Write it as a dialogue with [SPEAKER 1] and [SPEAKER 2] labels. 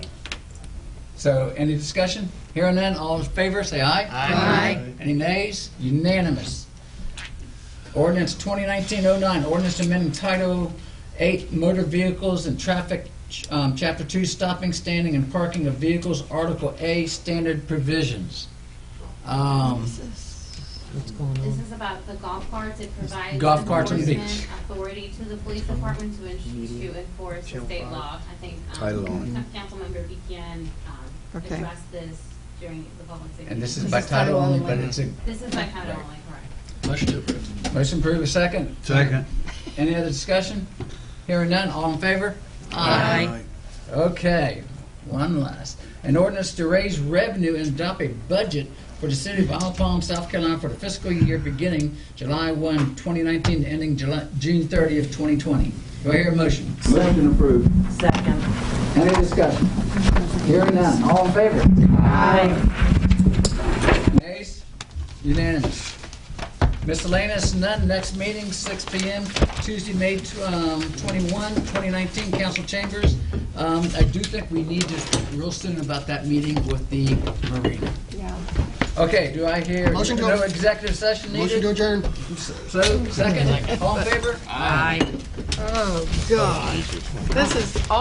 [SPEAKER 1] So any discussion? Here and then, all in favor, say aye.
[SPEAKER 2] Aye.
[SPEAKER 1] Any nays? Unanimous. Ordinance 2019-09, ordinance amending Title 8 Motor Vehicles and Traffic, um, Chapter 2, Stopping, Standing, and Parking of Vehicles, Article A, Standard Provisions. Um,
[SPEAKER 3] This is about the golf carts. It provides
[SPEAKER 1] golf carts on the beach.
[SPEAKER 3] enforcement authority to the police department to, en- to enforce the state law. I think,
[SPEAKER 4] Title only.
[SPEAKER 3] um, Councilmember Beekman, um,
[SPEAKER 2] Okay.
[SPEAKER 3] addressed this during the public safety.
[SPEAKER 1] And this is
[SPEAKER 2] This
[SPEAKER 1] by
[SPEAKER 2] is title
[SPEAKER 1] title only,
[SPEAKER 2] only.
[SPEAKER 1] but it's a,
[SPEAKER 3] This is by title only, correct.
[SPEAKER 4] Motion to approve.
[SPEAKER 1] motion approved, a second.
[SPEAKER 4] Second.
[SPEAKER 1] Any other discussion? Here and none, all in favor?
[SPEAKER 2] Aye.
[SPEAKER 1] Okay, one last. An ordinance to raise revenue and adopt a budget for the city of Isle Palm, South Carolina for the fiscal year beginning July 1, 2019, and ending July, June 30th, 2020. Do I hear a motion? Motion approved.
[SPEAKER 5] Second.
[SPEAKER 1] Any discussion? Hearing none, all in favor?
[SPEAKER 5] Aye.
[SPEAKER 1] Nays? Unanimous. Miscellaneous, none. Next meeting, 6 PM, Tuesday, May tw- um, 21, 2019, council chambers. Um, I do think we need to speak real soon about that meeting with the marina.
[SPEAKER 2] Yeah.
[SPEAKER 1] Okay, do I hear?
[SPEAKER 6] Motion to-
[SPEAKER 1] No executive session
[SPEAKER 6] Motion to
[SPEAKER 1] needed?
[SPEAKER 6] adjourn.
[SPEAKER 1] So, second, all in favor?
[SPEAKER 2] Oh, God. This is